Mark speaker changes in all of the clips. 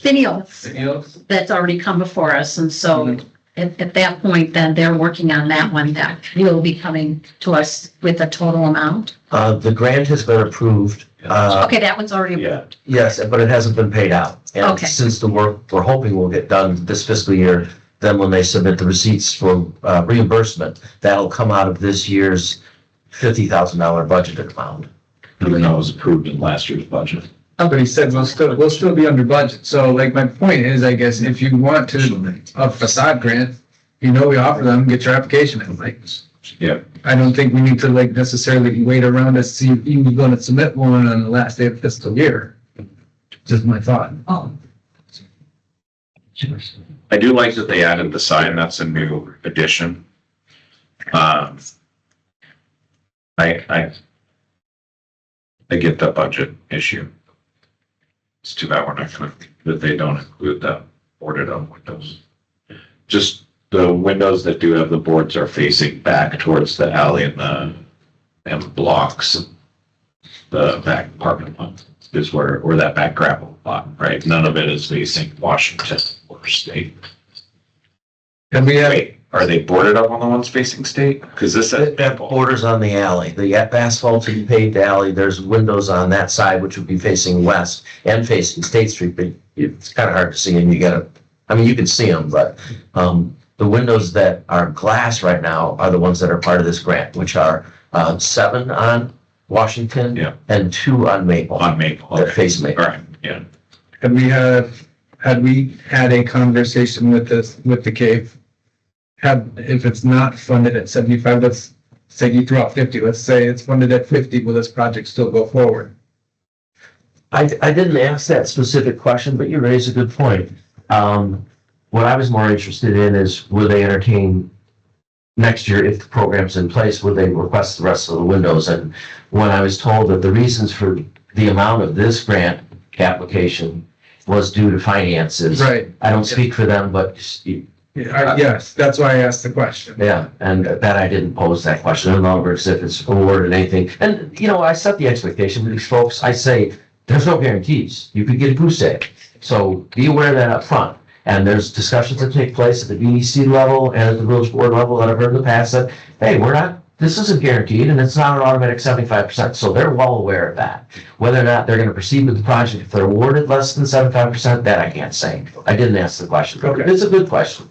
Speaker 1: Finials that's already come before us. And so
Speaker 2: Mhm.
Speaker 3: Mm-hmm.
Speaker 1: at, at that point, then they're working on that one that will be coming to us with a total amount.
Speaker 4: Uh, the grant has been approved, uh,
Speaker 1: Okay, that one's already
Speaker 2: Yeah.
Speaker 1: approved.
Speaker 4: yes, but it hasn't been paid out. And
Speaker 1: Okay.
Speaker 4: since the work, we're hoping will get done this fiscal year, then when they submit the receipts for uh, reimbursement, that'll come out of this year's fifty thousand dollar budgeted amount.
Speaker 2: Even though it was approved in last year's budget.
Speaker 5: But he said, we'll still, we'll still be under budget. So like my point is, I guess, if you want to a facade grant, you know, we offer them, get your application in, like.
Speaker 2: Yeah.
Speaker 5: I don't think we need to like necessarily wait around to see if you're gonna submit one on the last day of fiscal year. Just my thought.
Speaker 1: Oh,
Speaker 2: I do like that they added the sign, that's a new addition. Um, I, I, I get the budget issue. It's too bad we're not gonna, that they don't include the boarded up windows. Just the windows that do have the boards are facing back towards the alley and the, and blocks. The back parking lot is where, or that back gravel lot, right? None of it is facing Washington or state.
Speaker 5: And we have,
Speaker 2: Wait, are they boarded up on the ones facing state? Because this
Speaker 4: That, that borders on the alley, the asphalted paved alley, there's windows on that side which would be facing west and facing State Street, but it's kind of hard to see and you gotta, I mean, you can see them, but, um, the windows that are glass right now are the ones that are part of this grant, which are, uh, seven on Washington
Speaker 2: Yeah.
Speaker 4: and two on Maple,
Speaker 2: on Maple.
Speaker 4: that
Speaker 2: Okay.
Speaker 4: face Maple.
Speaker 2: All right, yeah.
Speaker 5: and we have, had we had a conversation with this, with the cave? Had, if it's not funded at seventy-five, let's say you threw out fifty, let's say it's funded at fifty, will this project still go forward?
Speaker 4: I, I didn't ask that specific question, but you raise a good point. Um, what I was more interested in is will they entertain next year, if the program's in place, would they request the rest of the windows? And when I was told that the reasons for the amount of this grant application was due to finances.
Speaker 5: Right,
Speaker 4: I don't speak for them, but s- you-
Speaker 5: Yeah, I- yes, that's why I asked the question.
Speaker 4: yeah, and that I didn't pose that question in longer as if it's awarded anything. And, you know, I set the expectation with these folks. I say, there's no guarantees. You could get a goose egg. So be aware of that up front. And there's discussions that take place at the BDC level and at the village board level that I've heard in the past that, hey, we're not, this isn't guaranteed and it's not an automatic seventy-five percent. So they're well aware of that. Whether or not they're gonna proceed with the project, if they're awarded less than seventy-five percent, that I can't say. I didn't ask the question. but
Speaker 5: Okay.
Speaker 4: It's a good question.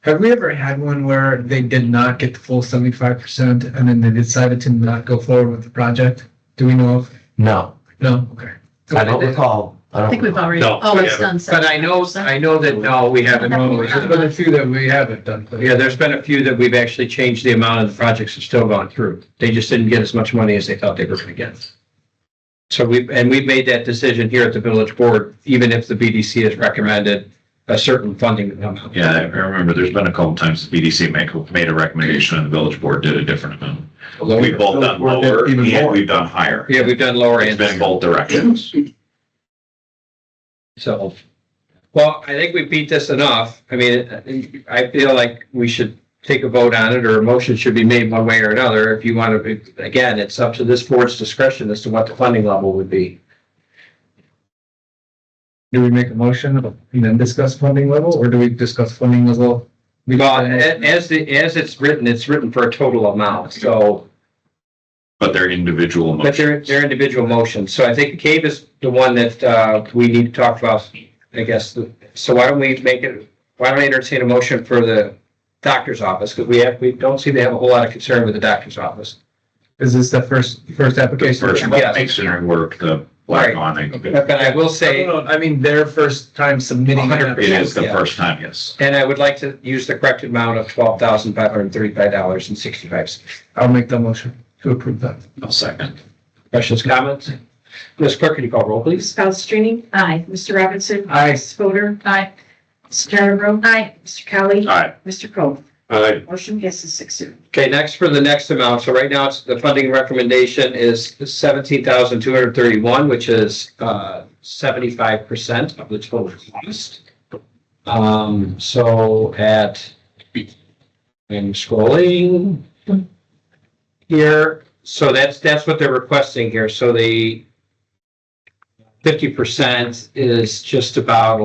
Speaker 5: Have we ever had one where they did not get the full seventy-five percent and then they decided to not go forward with the project? Do we know of?
Speaker 4: No.
Speaker 5: No, okay.
Speaker 4: I don't recall.
Speaker 1: I think we've already,
Speaker 3: No,
Speaker 1: oh,
Speaker 3: we
Speaker 1: it's done.
Speaker 3: But I know, I know that, no, we haven't.
Speaker 1: No, we
Speaker 5: There's been a few that we haven't done. but-
Speaker 3: Yeah, there's been a few that we've actually changed the amount of the projects that's still gone through. They just didn't get as much money as they thought they were gonna get. So we, and we've made that decision here at the village board, even if the BDC has recommended a certain funding amount.
Speaker 2: Yeah, I remember there's been a couple times the BDC make, made a recommendation and the village board did a different amount. We've both done lower
Speaker 5: Even
Speaker 2: and
Speaker 5: more.
Speaker 2: we've done higher.
Speaker 3: Yeah, we've done lower
Speaker 2: It's
Speaker 3: end.
Speaker 2: been both directions.
Speaker 3: So, well, I think we beat this enough. I mean, I feel like we should take a vote on it or a motion should be made one way or another. If you want to, again, it's up to this board's discretion as to what the funding level would be.
Speaker 5: Do we make a motion and then discuss funding level or do we discuss funding level? We
Speaker 3: Well, a- as, the- as it's written, it's written for a total amount, so,
Speaker 2: But they're individual
Speaker 3: but they're,
Speaker 2: motions.
Speaker 3: they're individual motions. So I think cave is the one that, uh, we need to talk about, I guess. So why don't we make it, why don't I entertain a motion for the doctor's office? Because we have, we don't seem to have a whole lot of concern with the doctor's office.
Speaker 5: Is this the first, first
Speaker 2: The
Speaker 5: application?
Speaker 2: first
Speaker 3: Yeah.
Speaker 2: one, masonry work, the black
Speaker 3: Right.
Speaker 2: awning,
Speaker 3: But I will say,
Speaker 5: No, no, I mean, their first time submitting. an
Speaker 3: 100%.
Speaker 2: it is the
Speaker 3: Yeah.
Speaker 2: first time, yes.
Speaker 3: and I would like to use the correct amount of twelve thousand five hundred thirty-five dollars and sixty-five cents.
Speaker 5: application. I'll make the motion to approve that.
Speaker 2: I'll second.
Speaker 3: Questions, comments? Ms. Clerk, can you call roll,
Speaker 6: Ms.
Speaker 3: please?
Speaker 6: Palastrellini?
Speaker 1: Aye.
Speaker 6: Mr. Robinson?
Speaker 5: Aye.
Speaker 6: Ms. Fodor?
Speaker 1: Aye.
Speaker 6: Mr. Cattrick?
Speaker 1: Aye.
Speaker 6: Mr. Kelly?
Speaker 2: Aye.
Speaker 6: Mr. Cole?
Speaker 2: Aye.
Speaker 6: Motion passes six zero.
Speaker 3: Okay, next for the next amount, so right now, it's, the funding recommendation is seventeen thousand two hundred thirty-one, which is, uh, seventy-five percent of the total cost. Um, so at, I'm scrolling here, so that's, that's what they're requesting here, so the fifty percent is just about